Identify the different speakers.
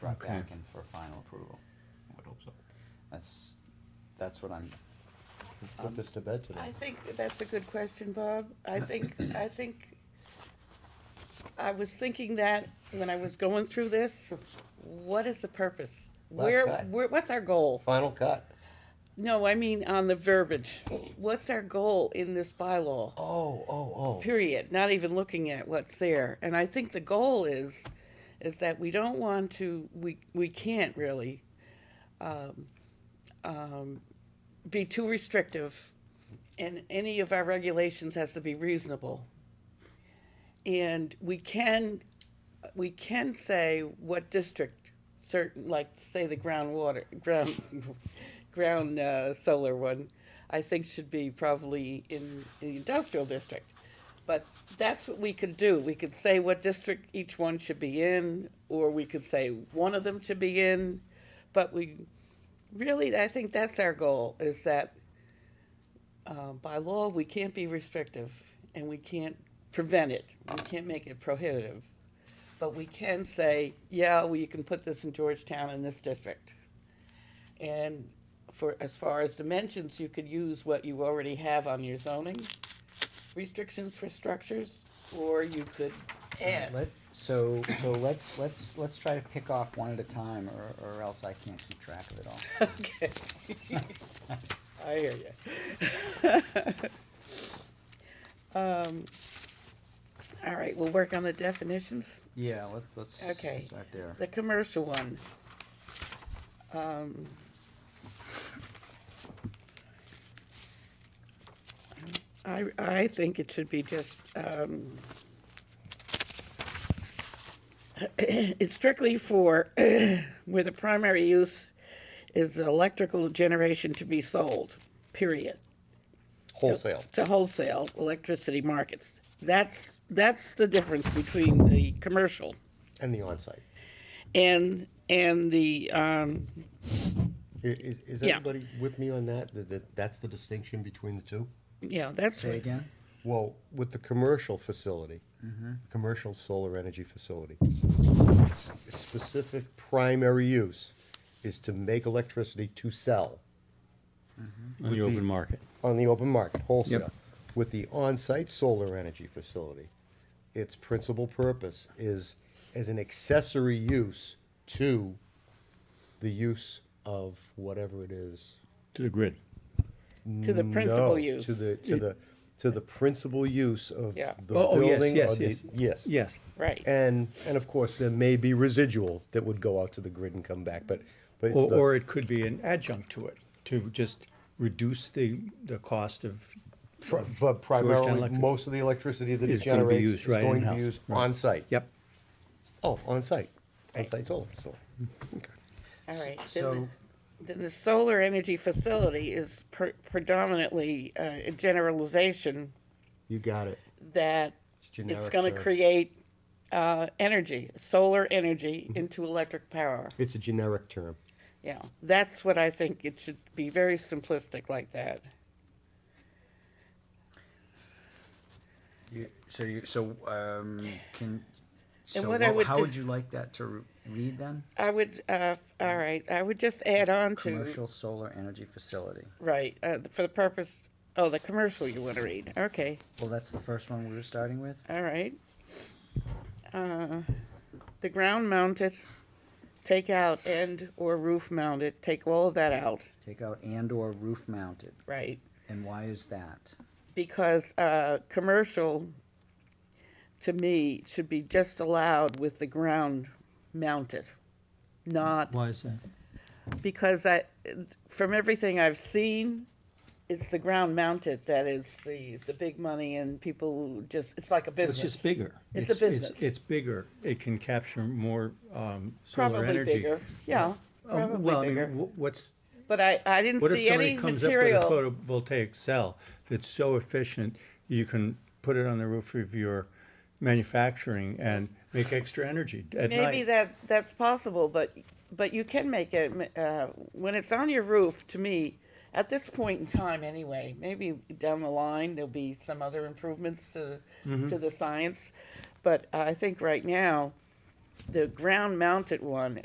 Speaker 1: brought
Speaker 2: Okay.
Speaker 1: back in for final approval.
Speaker 3: I would hope so.
Speaker 1: That's, that's what I'm,
Speaker 4: Let's put this to bed
Speaker 5: I
Speaker 4: today.
Speaker 5: think that's a good question, Bob. I think, I think, I was thinking that when I was going through this, what is the purpose?
Speaker 4: Last
Speaker 5: Where,
Speaker 4: guy.
Speaker 5: where, what's our goal?
Speaker 4: Final cut.
Speaker 5: No, I mean on the verbiage. What's our goal in this bylaw?
Speaker 4: Oh, oh, oh.
Speaker 5: period, not even looking at what's there. And I think the goal is, is that we don't want to, we, we can't really, um, um, be too restrictive. And any of our regulations has to be reasonable. And we can, we can say what district certain, like, say the groundwater, ground, ground, uh, solar one, I think should be probably in the industrial district. But that's what we could do. We could say what district each one should be in, or we could say one of them should be in. But we, really, I think that's our goal, is that uh, by law, we can't be restrictive, and we can't prevent it. We can't make it prohibitive. But we can say, yeah, well, you can put this in Georgetown in this district. And for, as far as dimensions, you could use what you already have on your zoning restrictions for structures, or you could add.
Speaker 1: let, so, so let's, let's, let's try to pick off one at a time, or, or else I can't keep track of it all.
Speaker 5: Okay. I hear you. Um, all right, we'll work on the definitions.
Speaker 1: Yeah, let's, let's
Speaker 5: Okay.
Speaker 1: start there.
Speaker 5: The commercial one. Um, I, I think it should be just, um, it's strictly for where the primary use is electrical generation to be sold, period
Speaker 4: Wholesale.
Speaker 5: to wholesale electricity markets. That's, that's the difference between the commercial
Speaker 4: And the on-site.
Speaker 5: and, and the, um,
Speaker 4: I- Is, is
Speaker 5: Yeah.
Speaker 4: everybody with me on that? That, that, that's the distinction between the two?
Speaker 5: yeah, that's,
Speaker 1: Say again?
Speaker 4: Well, with the commercial facility, commercial solar energy facility, specific primary use is to make electricity to sell
Speaker 2: On the open market.
Speaker 4: on the open market, wholesale.
Speaker 2: Yep.
Speaker 4: With the on-site solar energy facility, its principal purpose is as an accessory use to the use of whatever it is.
Speaker 2: To the grid.
Speaker 5: to the
Speaker 4: No,
Speaker 5: principal use.
Speaker 4: To the, to the, to the principal use of the
Speaker 5: Yeah.
Speaker 2: Oh, oh, yes,
Speaker 4: building
Speaker 2: yes,
Speaker 4: or the,
Speaker 2: yes.
Speaker 4: yes.
Speaker 2: Yes.
Speaker 5: Right,
Speaker 4: And, and of course, there may be residual that would go out to the grid and come back, but, but it's
Speaker 2: Or, or
Speaker 4: the,
Speaker 2: it could be an adjunct to it, to just reduce the, the cost of,
Speaker 4: pri- but primarily,
Speaker 2: Electric.
Speaker 4: most of the electricity that it
Speaker 2: Is gonna be
Speaker 4: generates
Speaker 2: used
Speaker 4: is
Speaker 2: right
Speaker 4: going to
Speaker 2: in-house,
Speaker 4: be used
Speaker 2: right.
Speaker 4: on-site.
Speaker 2: yep.
Speaker 4: Oh, on-site, on-site solar facility.
Speaker 5: all right.
Speaker 1: So,
Speaker 5: Then the- then the solar energy facility is pre- predominantly uh, a generalization
Speaker 4: You got it.
Speaker 5: that it's
Speaker 4: generic
Speaker 5: gonna
Speaker 4: term.
Speaker 5: create, uh, energy, solar energy
Speaker 1: Mm-hmm.
Speaker 5: into electric power.
Speaker 4: It's a generic term.
Speaker 5: Yeah, that's what I think. It should be very simplistic like that.
Speaker 1: you, so you, so, um, can, so
Speaker 5: what I
Speaker 1: what-
Speaker 5: would
Speaker 1: how
Speaker 5: do-
Speaker 1: would you like that to re- read then?
Speaker 5: I would, uh, all right, I would just add on to.
Speaker 1: Commercial solar energy facility.
Speaker 5: Right, uh, for the purpose, oh, the commercial you wanna read, okay,
Speaker 1: Well, that's the first one we were starting with?
Speaker 5: all right. Uh, The ground mounted, take out and or roof mounted, take all of that out,
Speaker 1: Take out and/or roof mounted.
Speaker 5: right?
Speaker 1: And why is that?
Speaker 5: Because, uh, commercial, to me, should be just allowed with the ground mounted, not
Speaker 2: Why is that?
Speaker 5: because I, from everything I've seen, it's the ground mounted that is the, the big money and people just, it's like a
Speaker 2: It's
Speaker 5: business.
Speaker 2: just bigger.
Speaker 5: It's a business.
Speaker 2: It's bigger. It can capture more, um, solar
Speaker 5: Probably
Speaker 2: energy.
Speaker 5: bigger, yeah,
Speaker 2: Um, Well, I
Speaker 5: probably
Speaker 2: mean,
Speaker 5: bigger.
Speaker 2: wh- What's,
Speaker 5: But I, I didn't
Speaker 2: What if
Speaker 5: see
Speaker 2: somebody
Speaker 5: any
Speaker 2: comes up with a
Speaker 5: material.
Speaker 2: photovoltaic cell that's so efficient, you can put it on the roof of your manufacturing and make extra energy at
Speaker 5: Maybe
Speaker 2: night?
Speaker 5: that, that's possible, but, but you can make it, uh, when it's on your roof, to me, at this point in time anyway, maybe down the line, there'll be some other improvements to,
Speaker 2: Mm-hmm.
Speaker 5: to the science. But I think right now, the ground mounted one